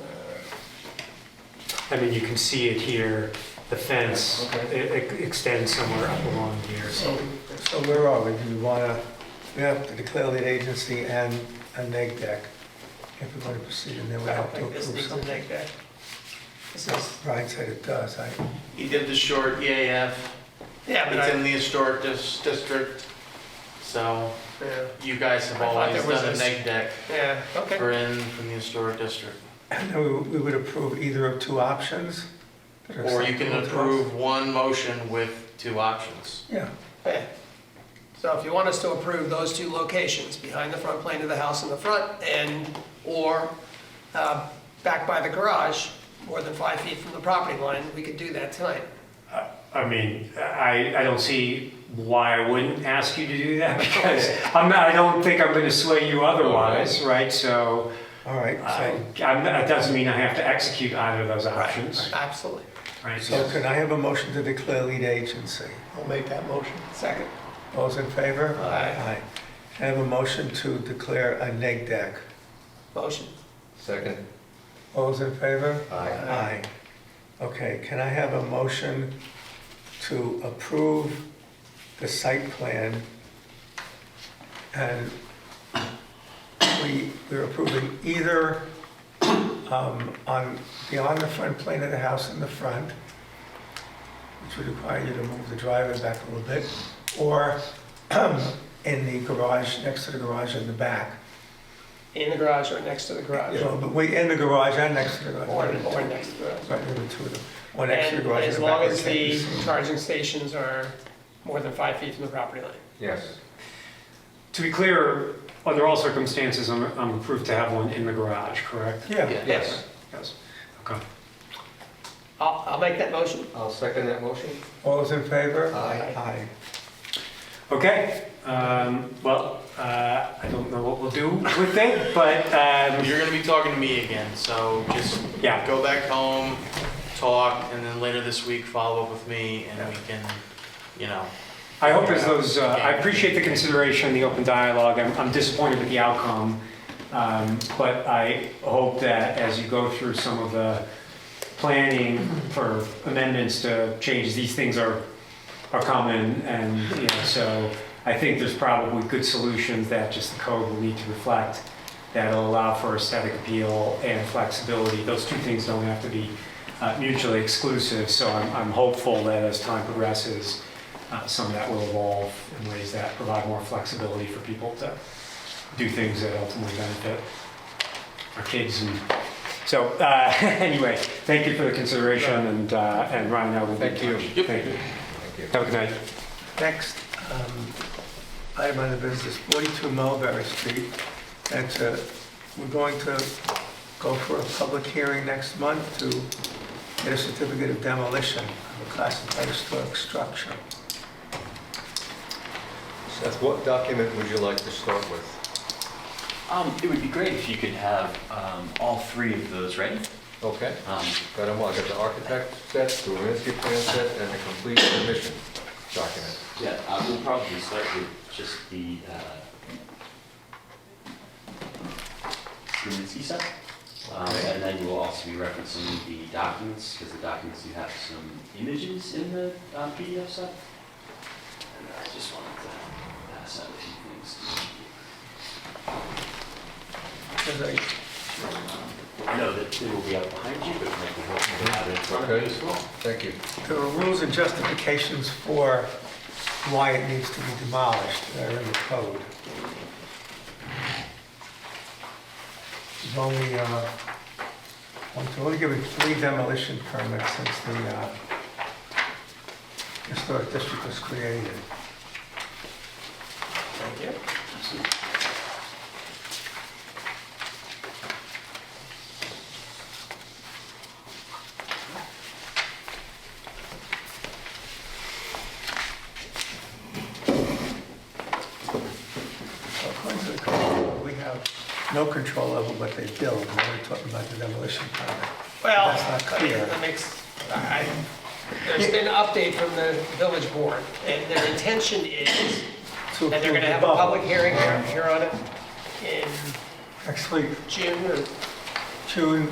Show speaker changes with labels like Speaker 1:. Speaker 1: Uh,
Speaker 2: I mean, you can see it here, the fence,
Speaker 3: Okay.
Speaker 2: it it extends somewhere up along here, so.
Speaker 3: So, so where are we? Do we wanna, we have to declare lead agency and a neg deck if we're gonna proceed, and then we
Speaker 1: I don't
Speaker 3: have to
Speaker 1: think
Speaker 3: approve
Speaker 1: this needs a
Speaker 3: something.
Speaker 1: neg deck. This is,
Speaker 3: Brian said it does, I,
Speaker 4: He did the short EAF,
Speaker 1: yeah, but I,
Speaker 4: it's in the historic dis- district, so
Speaker 1: yeah,
Speaker 4: you guys have
Speaker 1: I thought
Speaker 4: always
Speaker 1: there was
Speaker 4: done a
Speaker 1: this-
Speaker 4: neg deck
Speaker 1: yeah, okay.
Speaker 4: for in from the historic district.
Speaker 3: and then we, we would approve either of two options. that are
Speaker 4: Or you can
Speaker 3: acceptable to us.
Speaker 4: approve one motion with two options.
Speaker 3: Yeah,
Speaker 1: Yeah. So if you want us to approve those two locations, behind the front plane of the house in the front and, or uh, back by the garage, more than five feet from the property line, we could do that tonight.
Speaker 2: I mean, I, I don't see why I wouldn't ask you to do that because I'm not, I don't think I'm gonna sway you otherwise, right? So,
Speaker 3: all right,
Speaker 2: I- I'm, that doesn't mean I have to execute either of those options,
Speaker 1: Absolutely.
Speaker 2: right?
Speaker 3: so, so can I have a motion to declare lead agency?
Speaker 1: I'll make that motion. Second.
Speaker 3: Those in favor?
Speaker 1: Aye.
Speaker 3: Can I have a motion to declare a neg deck?
Speaker 1: Motion.
Speaker 5: Second.
Speaker 3: Those in favor?
Speaker 5: Aye.
Speaker 3: Aye. Okay, can I have a motion to approve the site plan? And we, we're approving either um, on, beyond the front plane of the house in the front, which would require you to move the driveway back a little bit, or um, in the garage, next to the garage in the back.
Speaker 1: In the garage or next to the garage.
Speaker 3: So, but we, in the garage and next to the garage.
Speaker 1: Or, or next to the garage.
Speaker 3: Right, there were two of them. One extra
Speaker 1: And
Speaker 3: garage in
Speaker 1: as
Speaker 3: the
Speaker 1: long
Speaker 3: back,
Speaker 1: as
Speaker 3: which I
Speaker 1: the
Speaker 3: can see.
Speaker 1: charging stations are more than five feet from the property line.
Speaker 5: Yes.
Speaker 2: To be clear, under all circumstances, I'm, I'm approved to have one in the garage, correct?
Speaker 3: Yeah,
Speaker 5: Yes.
Speaker 2: Yes. Okay.
Speaker 1: I'll, I'll make that motion.
Speaker 5: I'll second that motion.
Speaker 3: all those in favor?
Speaker 5: Aye.
Speaker 3: Aye.
Speaker 2: Okay, um, well, uh, I don't know what we'll do with it, but, um,
Speaker 4: You're gonna be talking to me again, so just
Speaker 2: yeah,
Speaker 4: go back home, talk, and then later this week, follow up with me, and we can, you know,
Speaker 2: I hope as those, uh, I appreciate the consideration, the open dialogue, I'm, I'm disappointed with the outcome. Um, but I hope that as you go through some of the planning for amendments to change, these things are, are common and, you know, so I think there's probably good solutions that just the code will need to reflect that'll allow for aesthetic appeal and flexibility. Those two things don't have to be uh, mutually exclusive, so I'm, I'm hopeful that as time progresses, uh, some of that will evolve in ways that provide more flexibility for people to do things that ultimately benefit our kids. And so, uh, anyway, thank you for the consideration, and uh, and Ryan, I will be
Speaker 5: Thank
Speaker 2: in
Speaker 5: you.
Speaker 2: touch.
Speaker 4: Yep.
Speaker 2: Thank you.
Speaker 5: Thank you.
Speaker 2: Have a good night.
Speaker 3: Next, um, item on the business, 42 Mulberry Street. That's a, we're going to go for a public hearing next month to get a certificate of demolition of a classified historic structure.
Speaker 5: Seth, what document would you like to start with?
Speaker 6: Um, it would be great if you could have um, all three of those ready.
Speaker 5: Okay,
Speaker 6: Um,
Speaker 5: got them all. I got the architect set, the Winsky plan set, and the complete submission document.
Speaker 6: yeah, I will probably start with just the uh, Gruminski set, um, and then you will also be referencing the documents because the documents you have some images in the um, PDF set. And I just wanted to pass out a few things.
Speaker 3: As I-
Speaker 6: I know that it will be out behind you, but it might be helpful to have it in front of you as well.
Speaker 5: Thank you.
Speaker 3: There are rules and justifications for why it needs to be demolished that are in the code. There's only, uh, one- they're only given three demolition permits since the uh, historic district was created.
Speaker 1: Thank you.
Speaker 3: So According to the code, we have no control over what they build, and we're talking about the demolition permit.
Speaker 1: Well,
Speaker 3: That's not
Speaker 1: I mean,
Speaker 3: clear.
Speaker 1: that makes, I, there's been an update from the village board, and their intention is
Speaker 3: To
Speaker 1: that they're
Speaker 3: approve
Speaker 1: gonna
Speaker 3: the
Speaker 1: have a
Speaker 3: bubble.
Speaker 1: public hearing here here on it in
Speaker 3: Actually,
Speaker 1: June or
Speaker 3: June